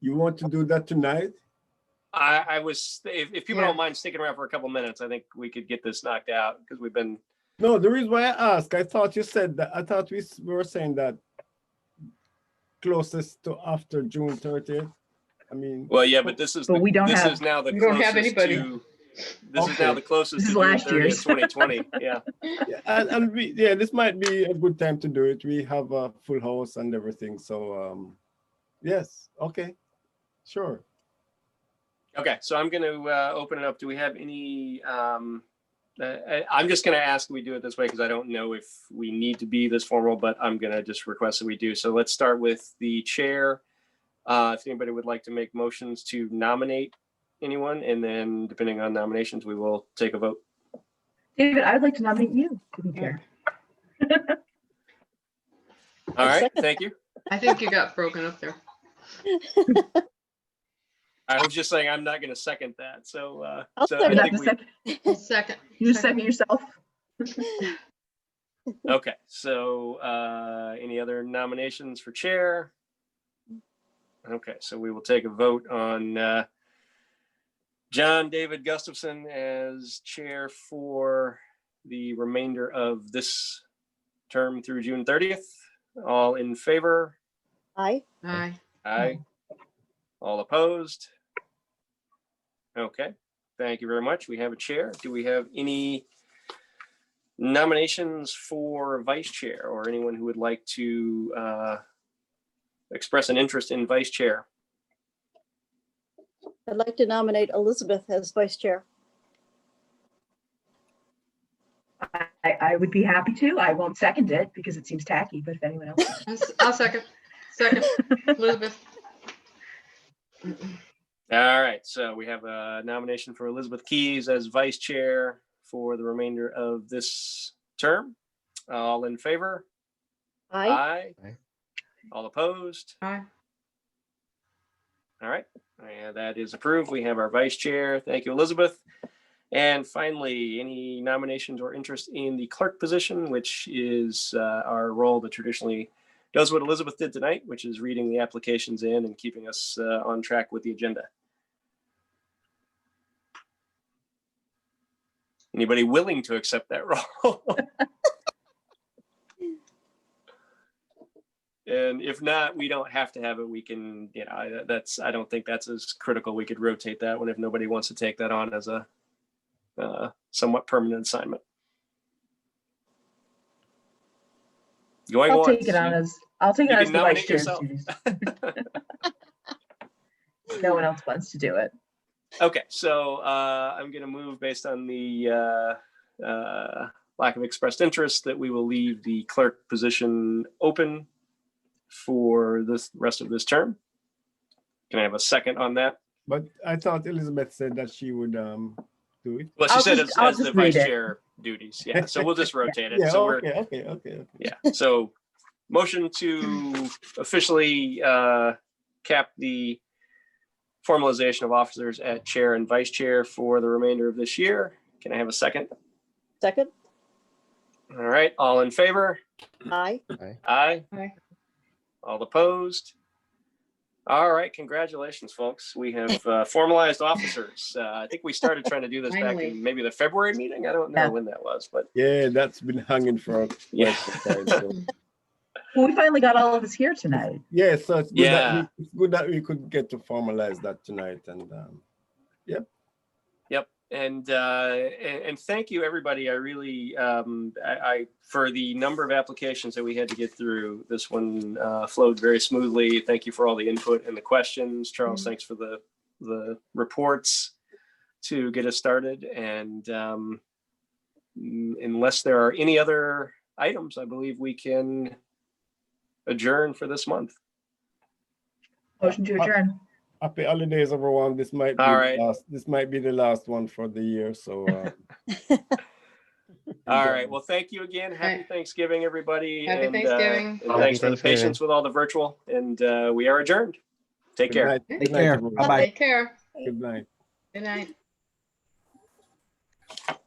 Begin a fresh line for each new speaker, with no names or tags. You want to do that tonight?
I, I was, if, if people
Yeah.
don't mind sticking around for a couple minutes, I think we could get this knocked out because we've been,
No, the reason why I ask, I thought you said that, I thought we s- we were saying that closest to after June thirtieth. I mean,
well, yeah, but this is,
But
the-
we don't
this
have-
is now the
we don't have
closest
anybody.
to, this is now
Okay.
the closest
This
to
is
June
last year's.
thirtieth, twenty twenty. Yeah.
yeah, and, and we, yeah, this might be a good time to do it. We have a full house and everything, so, um, yes, okay, sure.
Okay, so I'm going to uh, open it up. Do we have any? Um, uh, I- I'm just going to ask we do it this way because I don't know if we need to be this formal, but I'm going to just request that we do. So let's start with the chair. Uh, if anybody would like to make motions to nominate anyone, and then depending on nominations, we will take a vote.
David, I would like to nominate you to be chair.
All right, thank you.
I think you got broken up there.
I was just saying I'm not going to second that. So, uh,
I'll
so
You're
I
second.
not the
think
second,
Second.
you second yourself?
we, okay. So, uh, any other nominations for chair? Okay, so we will take a vote on uh, John David Gustafson as chair for the remainder of this term through June 30th. All in favor?
Aye.
Aye.
Aye. All opposed? Okay, thank you very much. We have a chair. Do we have any nominations for vice chair or anyone who would like to uh, express an interest in vice chair?
I'd like to nominate Elizabeth as vice chair.
I, I would be happy to. I won't second it because it seems tacky, but if anyone else.
I'll s- I'll second. Second, Elizabeth.
All right, so we have a nomination for Elizabeth Keys as vice chair for the remainder of this term. All in favor?
Aye.
Aye. All opposed?
Aye.
All right, uh, that is approved. We have our vice chair. Thank you, Elizabeth. And finally, any nominations or interest in the clerk position, which is uh, our role that traditionally does what Elizabeth did tonight, which is reading the applications in and keeping us uh, on track with the agenda. Anybody willing to accept that role? And if not, we don't have to have it. We can, you know, I- that's, I don't think that's as critical. We could rotate that one if nobody wants to take that on as a uh, somewhat permanent assignment. Going
I'll
once.
take it on as, I'll take it
you
on
can
as the vice
nominate
chair.
yourself.
Susan. No one else wants to do it.
Okay, so uh, I'm going to move based on the uh, uh, lack of expressed interest that we will leave the clerk position open for this rest of this term. Can I have a second on that?
But I thought Elizabeth said that she would, um, do it.
Well, she
I'll
said
just-
as,
I'll
as the
just
vice
read it.
chair duties. Yeah, so we'll just rotate it.
Yeah,
So we're,
okay, okay, okay.
yeah, so motion to officially uh, cap the formalization of officers at chair and vice chair for the remainder of this year. Can I have a second?
Second.
All right, all in favor?
Aye.
Aye.
Aye.
All opposed? All right, congratulations, folks. We have uh, formalized officers. Uh, I think we started trying to do this back
Finally.
in maybe the February meeting. I don't know
Yeah.
when that was, but
Yeah, that's been hanging for
yeah.
quite some time.
Well, we finally got all of us here tonight.
Yeah, so it's good, that
Yeah.
we, it's good that we could get to formalize that tonight and um,
Yep. And, uh, and and thank you, everybody. I really, um, I, I for the number of applications that we had to get through. This one uh, flowed very smoothly. Thank you for all the input and the questions, Charles. Thanks for the the reports to get us started. And um, n- unless there are any other items, I believe we can adjourn for this month.
Motion to adjourn.
happy holidays, everyone. This might be
All
the
right.
last, this might be the last one for the year. So uh,
All right. Well, thank you again. Happy
right.
Thanksgiving, everybody.
Happy
and, uh,
Thanksgiving.
and
Happy
thanks for the
Thanksgiving.
patience with all the virtual. And uh, we are adjourned. Take
good
care.
night-
Take
good night,
care.
everyone.
Bye-bye.
Take care.
Good night.
Good night.